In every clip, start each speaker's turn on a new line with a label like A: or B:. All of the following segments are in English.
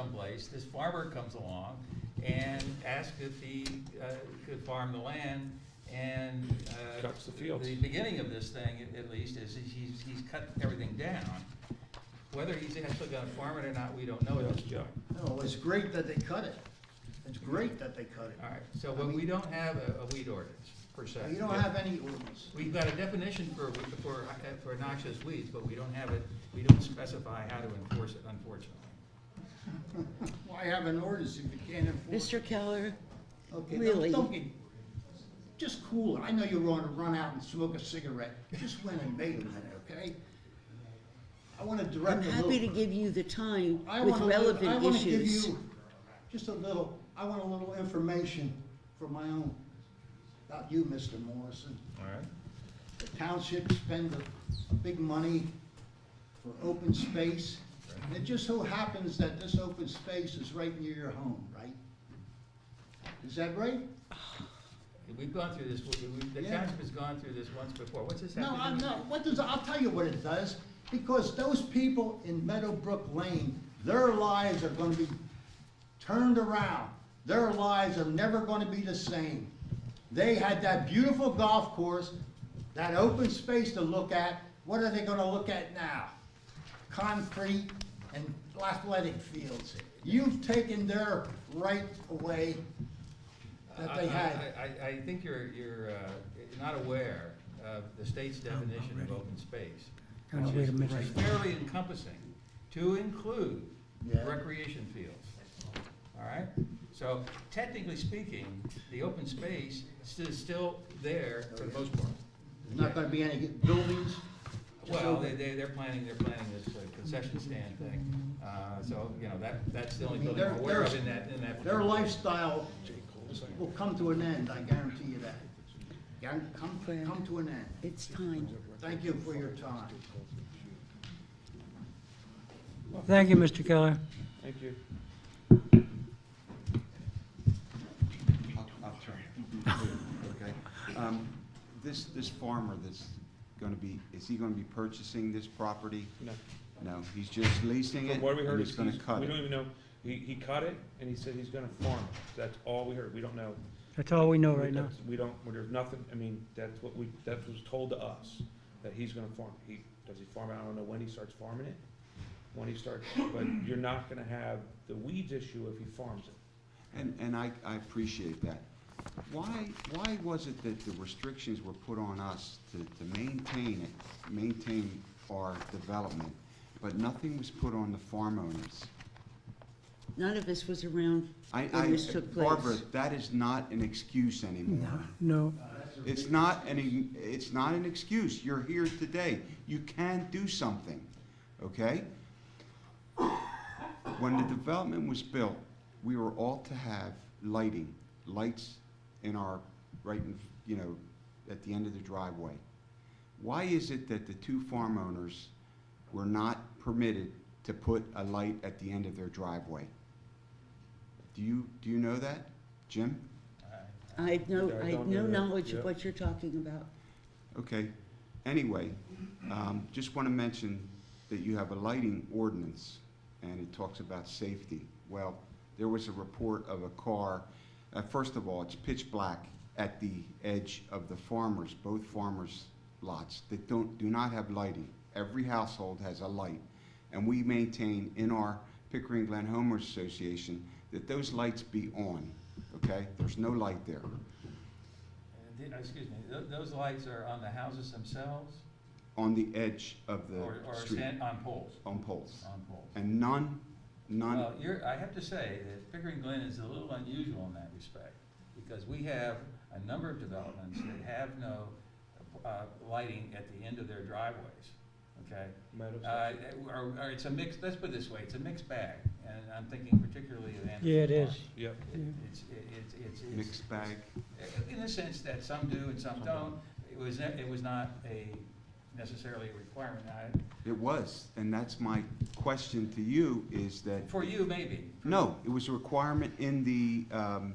A: someplace, this farmer comes along and asks if he uh, could farm the land, and. uh,
B: Cuts the fields.
A: The beginning of this thing, at- at least, is he's, he's cut everything down. Whether he's actually gonna farm it or not, we don't know at this
B: Yeah.
A: point.
C: No, it's great that they cut it. It's great that they cut
A: All
C: it.
A: right, so when we don't have a a weed ordinance, per se.
C: You don't have any ordinance.
A: We've got a definition for, for, for noxious weeds, but we don't have it, we don't specify how to enforce it, unfortunately.
C: Why have an ordinance if you can't enforce? it?
D: Mr. Keller,
C: Okay, don't-
D: really?
C: Don't get, just cool it. I know you want to run out and smoke a cigarette. Just went and made a minute, okay? I want to
D: I'm
C: direct a
D: happy to
C: little.
D: give you the time
C: I
D: with
C: wanna li- I
D: relevant
C: wanna give
D: issues.
C: you Just a little, I want a little information for my own, about you, Mr. Morrison.
A: All right.
C: The township spend a, a big money for open space. And it just so happens that this open space is right near your home, right? Is that right?
A: We've gone through this, we- we- the
C: Yeah.
A: township has gone through this once before, what's this have
C: No,
A: to do
C: I'm
A: with
C: not, what does, I'll tell you what it does, because those people in Meadowbrook Lane, their lives are gonna be turned around. Their lives are never gonna be the same. They had that beautiful golf course, that open space to look at, what are they gonna look at now? Concrete and athletic fields. You've taken their right away that they
A: I-
C: had.
A: I, I, I think you're, you're uh, not aware of the state's definition of open space.
E: Now,
A: which
E: wait a
A: is-
E: minute.
A: Which is fairly encompassing, to include
C: Yeah.
A: recreation fields. All right? So technically speaking, the open space is still there
C: Oh,
A: for the most part.
C: There's not gonna be any buildings. just
A: Well,
C: open.
A: they, they, they're planning, they're planning this uh, concession stand thing, uh, so, you know, that, that's the only
C: I mean,
A: building I'm
C: they're-
A: aware of
C: they're-
A: in that, in that.
C: Their
A: particular-
C: lifestyle will come to an end, I guarantee you that. Guaran- Come, come to an end.
D: It's time.
C: Thank you for your time.
E: Thank you, Mr. Keller.
B: Thank you.
F: I'll, I'll try. Okay. Um, This, this farmer that's gonna be, is he gonna be purchasing this property?
B: No.
F: No, he's just leasing it?
B: From what we heard,
F: and
B: is
F: he's gonna
B: he's,
F: cut
B: we don't
F: it.
B: even know, he, he cut it and he said he's gonna farm it. That's all we heard. We don't know.
E: That's all we know right now.
B: That's- We don't, well, there's nothing, I mean, that's what we, that was told to us, that he's gonna farm. it. He, does he farm it? I don't know when he starts farming it, when he starts, but you're not gonna have the weeds issue if he farms it.
F: And, and I, I appreciate that. Why, why was it that the restrictions were put on us to, to maintain it, maintain our development, but nothing was put on the farm owners?
D: None of us was around
F: I,
D: when
F: I,
D: this took place.
F: Barbara, that is not an excuse anymore.
E: No,
F: It's not an, e, it's not an excuse. You're here today. You can do something, okay? When the development was built, we were all to have lighting, lights in our, right in, you know, at the end of the driveway. Why is it that the two farm owners were not permitted to put a light at the end of their driveway? Do you, do you know that, Jim?
D: I have no,
B: Yeah, I
D: I have
B: don't
D: no
B: know that.
D: knowledge
B: Yeah.
D: of what you're talking about.
F: Okay, anyway, um, just want to mention that you have a lighting ordinance, and it talks about safety. Well, there was a report of a car, uh, first of all, it's pitch black at the edge of the farmers, both farmers' lots, that don't, do not have lighting. Every household has a light, and we maintain in our Pickering Glen Homers Association that those lights be on, okay? There's no light there.
A: Uh, th- Excuse me, tho- those lights are on the houses themselves
F: On the edge of the
A: or, or
F: street.
A: stand on poles,
F: on poles.
A: on poles?
F: And none, none,
A: Well, you're, I have to say that Pickering Glen is a little unusual in that respect, because we have a number of developments that have no, uh, lighting at the end of their driveways, okay?
B: Meadows.
A: Uh, or, or it's a mix, let's put it this way, it's a mixed bag, and I'm thinking particularly of Anderson.
E: Yeah, it is.
A: Farm.
B: Yep.
A: It- It's, it- it's, it's. it's-
F: mixed bag.
A: In the sense that some do and some don't, it was, ne- it was not a necessarily a requirement, I,
F: It was, and that's my question to you, is that,
A: for you maybe. for-
F: no, it was a requirement in the, um,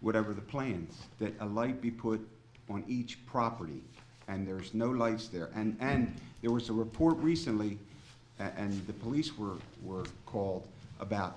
F: whatever the plans, that a light be put on each property, and there's no lights there. And, and there was a report recently, a- and the police were, were called about